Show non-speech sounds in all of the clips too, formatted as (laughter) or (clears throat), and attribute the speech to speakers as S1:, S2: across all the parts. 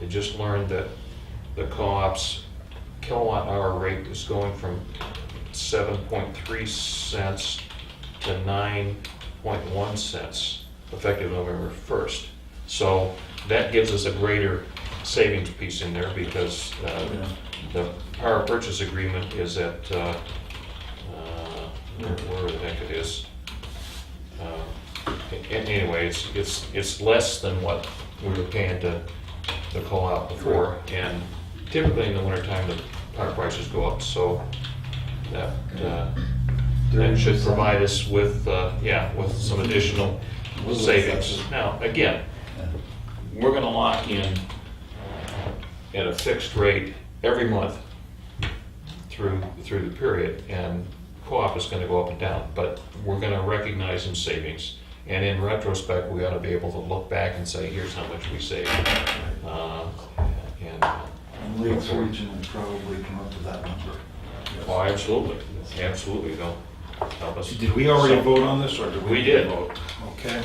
S1: I just learned that the co-op's kilowatt hour rate is going from 7.3 cents to 9.1 cents effective November 1st. So that gives us a greater savings piece in there because uh, the power purchase agreement is at, uh, uh, where where the heck it is. Uh, a- Anyway, it's, it's, it's less than what we were paying to the co-op before. And typically in the wintertime, the power prices go up, so that, uh, that should provide us with, uh, yeah, with some additional
S2: Little
S1: savings.
S2: flexible.
S1: Now, again, we're gonna lock in at a fixed rate every month through, through the period, and co-op is gonna go up and down, but we're gonna recognize some savings. And in retrospect, we ought to be able to look back and say, here's how much we saved. Uh, And,
S2: And Lakes Region would probably come up with that number.
S1: oh, absolutely, absolutely, they'll help us.
S3: Did we already
S1: So-
S3: vote on this, or did we?
S1: We did.
S3: vote? Okay,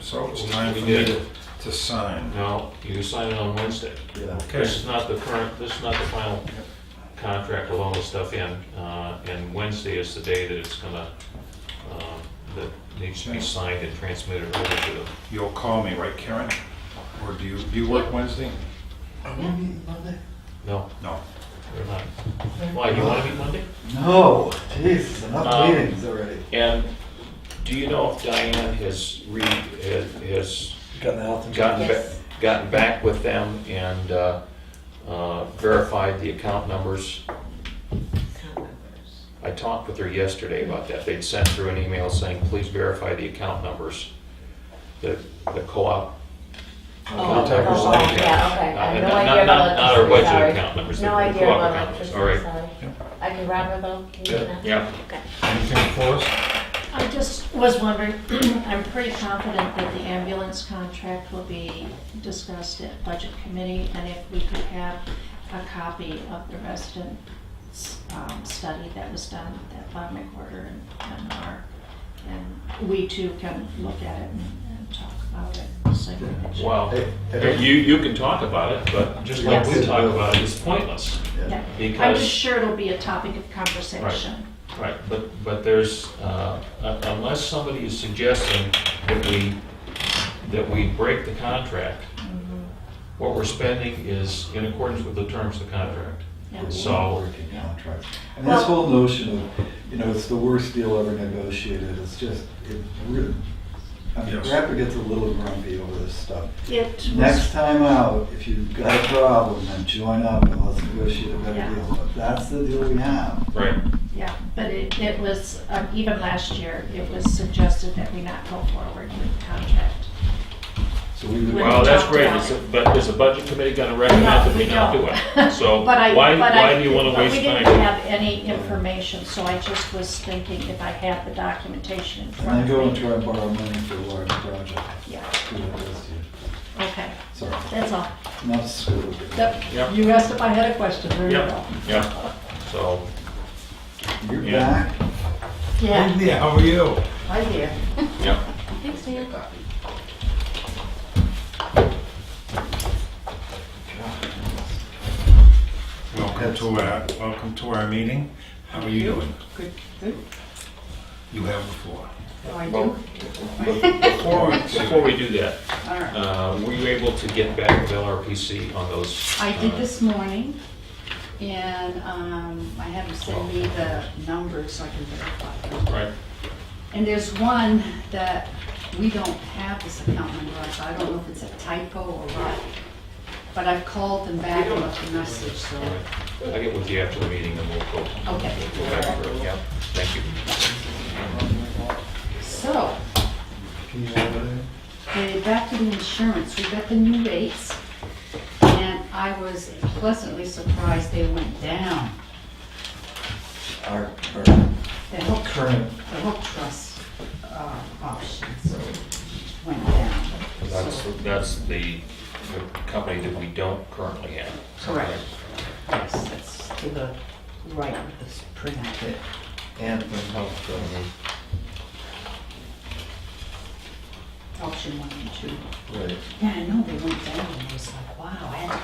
S3: so it's time
S1: We
S3: for me
S1: did.
S3: to, to sign.
S1: No, you sign it on Wednesday.
S2: Yeah.
S3: Okay.
S1: This is not the current, this is not the final contract with all the stuff in, uh, and Wednesday is the day that it's gonna, uh, that needs to be signed and transmitted over to them.
S3: You'll call me, right, Karen? Or do you, do you work Wednesday?
S2: Are we meeting Monday?
S1: No,
S3: No.
S1: they're not. Why, you wanna meet Monday?
S2: No, jeez, enough
S1: Um,
S2: meetings already.
S1: And do you know if Diane has re, has- has
S2: Got the health
S1: gotten, ba-
S4: Yes.
S1: gotten back with them and uh, uh, verified the account numbers? I talked with her yesterday about that. They'd sent through an email saying, please verify the account numbers, the, the co-op contact or
S4: oh,
S1: something.
S4: oh, yeah, okay. I have
S1: Uh,
S4: no
S1: not- not-
S4: idea about
S1: Not our
S4: electricity,
S1: budget
S4: sorry.
S1: account numbers, the
S4: No
S1: the
S4: idea
S1: co-op
S4: about
S1: account numbers,
S4: electricity,
S1: all right.
S4: sorry. I can grab her though, can you do
S3: Yeah.
S4: that?
S1: Yeah.
S4: Okay.
S3: Anything for us?
S5: I just was wondering, (clears throat) I'm pretty confident that the ambulance contract will be discussed at budget committee, and if we could have a copy of the resident um, study that was done at Bob McWhorter and- and our, and we too can look at it and and talk about it. so we can-
S1: Well,
S2: Hey, hey.
S1: you, you can talk about it, but just like we
S2: Yes.
S1: talk about it, it's pointless.
S5: Yeah. I'm
S1: Because-
S5: just sure it'll be a topic of conversation.
S1: Right, but, but there's, uh, un- unless somebody is suggesting that we, that we break the contract, what we're spending is in accordance with the terms of the contract.
S5: Yeah.
S1: So-
S2: Contract. And this whole notion of, you know, it's the worst deal ever negotiated, it's just, it really, I mean,
S3: Yes.
S2: Rapper gets a little grumpy over this stuff.
S5: It
S2: Next
S5: was,
S2: time out, if you've got a problem, then join up and let's negotiate a better
S5: Yeah.
S2: deal. But that's the deal we have.
S1: Right.
S5: yeah, but it, it was, um, even last year, it was suggested that we not go forward with the contract.
S2: So we would.
S5: When
S1: Well,
S5: we
S1: that's
S5: talked
S1: great,
S5: about
S1: Is
S5: it.
S1: it- but is the budget committee gonna recommend that we not do it? So
S5: (laughs) But I-
S1: why,
S5: but I-
S1: why do you wanna
S5: but
S1: waste
S5: We didn't
S1: time?
S5: have any information, so I just was thinking if I had the documentation in
S2: And
S5: front
S2: then go
S5: of
S2: and
S5: me.
S2: try and borrow money for a large project.
S5: Yeah,
S2: Screw it, that's you.
S5: okay,
S2: Sorry,
S5: that's all.
S2: not screw it.
S5: Yep,
S1: Yep.
S5: you asked if I had a question, there you
S1: Yeah,
S5: go.
S1: yeah, so,
S2: You're
S1: Yeah.
S2: back.
S5: Yeah,
S3: Yeah, how are you?
S5: I hear.
S1: yeah.
S4: Thanks, man.
S3: Welcome to our, welcome to our meeting. How are you doing?
S6: Good, good.
S3: You have the floor.
S6: Oh, I
S1: Well,
S6: do?
S1: Before, we- before we do that,
S6: All right.
S1: uh, were you able to get back with LRPC on those?
S6: I
S1: uh,
S6: did this morning, and um, I had them send me the numbers so I can verify them.
S1: Right,
S6: And there's one that we don't have this account number, so I don't know if it's a typo or what. But I've called them back and left a message,
S1: all
S6: so,
S1: right. I'll get with you after the meeting and we'll go.
S6: okay.
S1: Yeah, thank you.
S6: So,
S2: Can you hold it?
S6: Okay, back to the insurance, we got the new rates, and I was pleasantly surprised they went down.
S2: Our, our
S6: The health
S2: current
S6: the hook trust uh, options went down.
S1: That's,
S6: So-
S1: that's the the company that we don't currently have.
S6: Correct. Yes, that's to the right of this printout.
S2: anthem helped them,
S6: Option one and two.
S2: right?
S6: Yeah, I know they went down, and I was like, wow, I had to